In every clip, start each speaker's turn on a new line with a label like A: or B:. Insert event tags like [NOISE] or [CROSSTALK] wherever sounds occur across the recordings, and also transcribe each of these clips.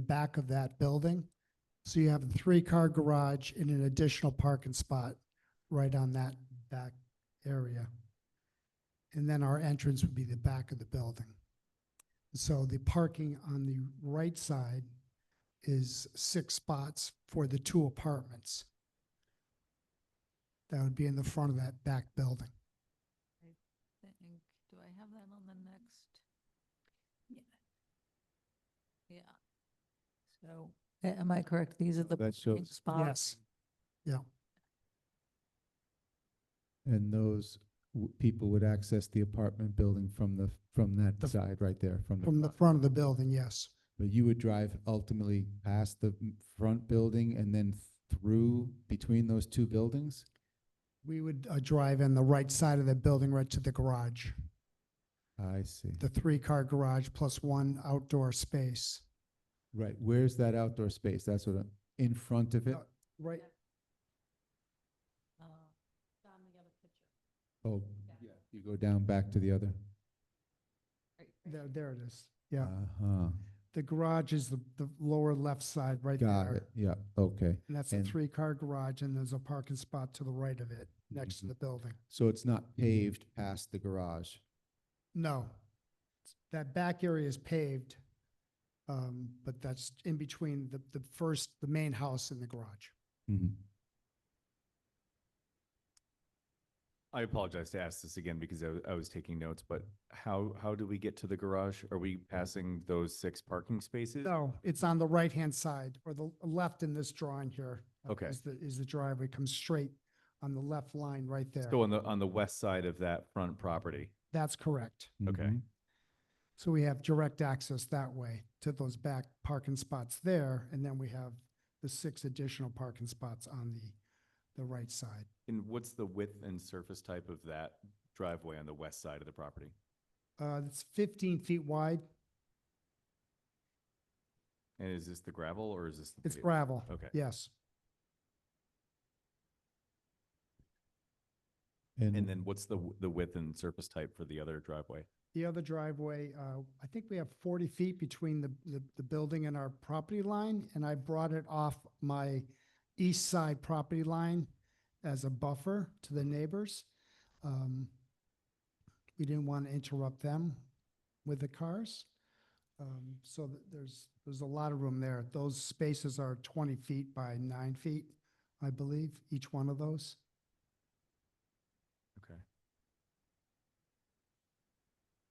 A: back of that building. So you have a three-car garage and an additional parking spot right on that back area. And then our entrance would be the back of the building. So the parking on the right side is six spots for the two apartments. That would be in the front of that back building.
B: think, do I have that on the next? Yeah. Yeah. So, a- am I correct? These are the
C: That
B: parking
C: shows,
B: spots?
C: and those w- people would access the apartment building from the, from
A: The-
C: that side right there, from the.
A: From the
C: front.
A: front of the building, yes.
C: But you would drive ultimately past the m- front building and then through between those two buildings?
A: We would uh, drive in the right side of the building right to the garage,
C: I see.
A: the three-car garage plus one outdoor space.
C: Right, where's that outdoor space? That's what, I'm- in front of it?
A: Uh, Right,
B: Uh,
C: Oh, yeah, you go down back to the other.
A: there, there it is. Yeah,
C: Uh-huh,
A: the garage is the, the lower left side right
C: got it,
A: there.
C: yeah, okay.
A: And that's a
C: And-
A: three-car garage and there's a parking spot to the right of it, next to
C: Mhm.
A: the building.
C: So it's not
A: Mm-hmm.
C: paved past the garage?
A: No. That back area is paved, um, but that's in between the, the first, the main house and the garage. Mm-hmm.
C: Mhm.
D: I apologize to ask this again because I, wa- I was taking notes, but how, how do we get to the garage? Are we passing those six parking spaces?
A: No, it's on the right-hand side or the left in this drawing here. uh,
D: Okay.
A: Is the, is the driveway comes straight on the left line right there.
D: So on the, on the west side of that front property?
A: That's correct.
D: Okay.
C: Mhm.
A: So we have direct access that way to those back parking spots there. And then we have the six additional parking spots on the, the right side.
D: And what's the width and surface type of that driveway on the west side of the property?
A: Uh, it's fifteen feet wide.
D: And is this the gravel or is this? the
A: It's
D: paved?
A: gravel.
D: Okay.
A: Yes.
D: And then what's the, w- the width and surface type for the other driveway?
A: The other driveway, uh, I think we have 40 feet between the, the, the building and our property line, and I brought it off my east side property line as a buffer to the neighbors. Um, We didn't want to interrupt them with the cars. Um, So th- there's, there's a lot of room there. Those spaces are 20 feet by nine feet, I believe, each one of those.
D: Okay.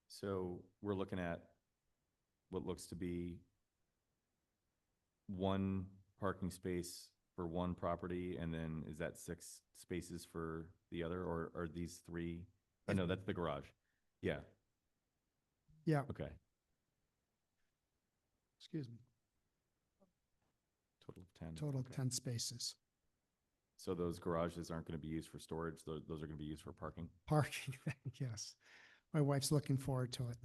D: So we're looking at what looks to be one parking space for one property, and then is that six spaces for the other, or are these three? Oh, no, that's the garage. Yeah,
A: Yeah,
D: okay.
A: excuse me,
D: Total of ten.
A: total of
D: Mm, Okay.
A: 10 spaces.
D: So those garages aren't gonna be used for storage, tho- those are gonna be used for parking?
A: Parking, [LAUGHS] thing, yes. My wife's looking forward to it.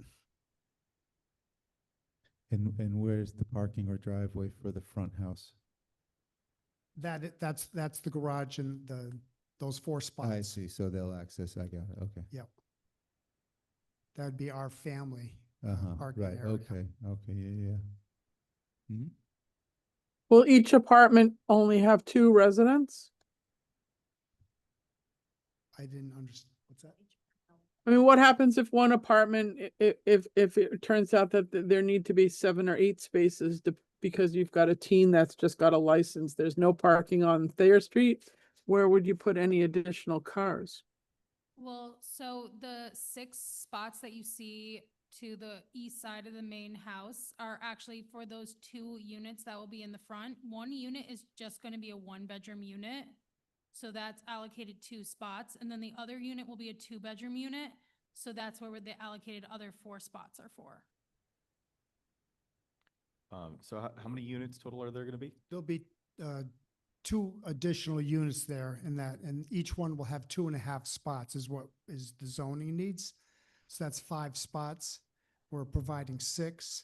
C: And, and where's the parking or driveway for the front house?
A: That, i- that's, that's the garage and the, those four
C: I
A: spots.
C: see, so they'll access, I got it, okay.
A: That'd be our family. uh,
C: Uh-huh,
A: parking
C: right,
A: area.
C: okay, okay, yeah, yeah. Mhm.
E: Will each apartment only have two residents?
A: I didn't understand, what's that?
E: I mean, what happens if one apartment, i- i- if, if it turns out that th- there need to be seven or eight spaces to- because you've got a teen that's just got a license, there's no parking on Thayer Street? Where would you put any additional cars?
F: Well, so the six spots that you see to the east side of the main house are actually for those two units that will be in the front. One unit is just going to be a one-bedroom unit. So that's allocated two spots, and then the other unit will be a two-bedroom unit. So that's where the allocated other four spots are for.
D: Um, so how, how many units total are there gonna be?
A: There'll be uh, two additional units there in that, and each one will have two and a half spots is what is the zoning needs. So that's five spots. We're providing six.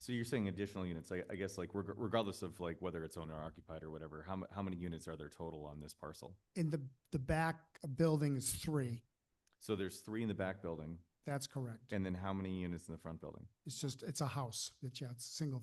D: So you're saying additional units, I, I guess like reg- regardless of like whether it's owner occupied or whatever, how, mu- how many units are there total on this parcel?
A: In the, the back building is three.
D: So there's three in the back building,
A: That's correct.
D: and then how many units in the front building?
A: It's just, it's a house. It's, yeah, it's single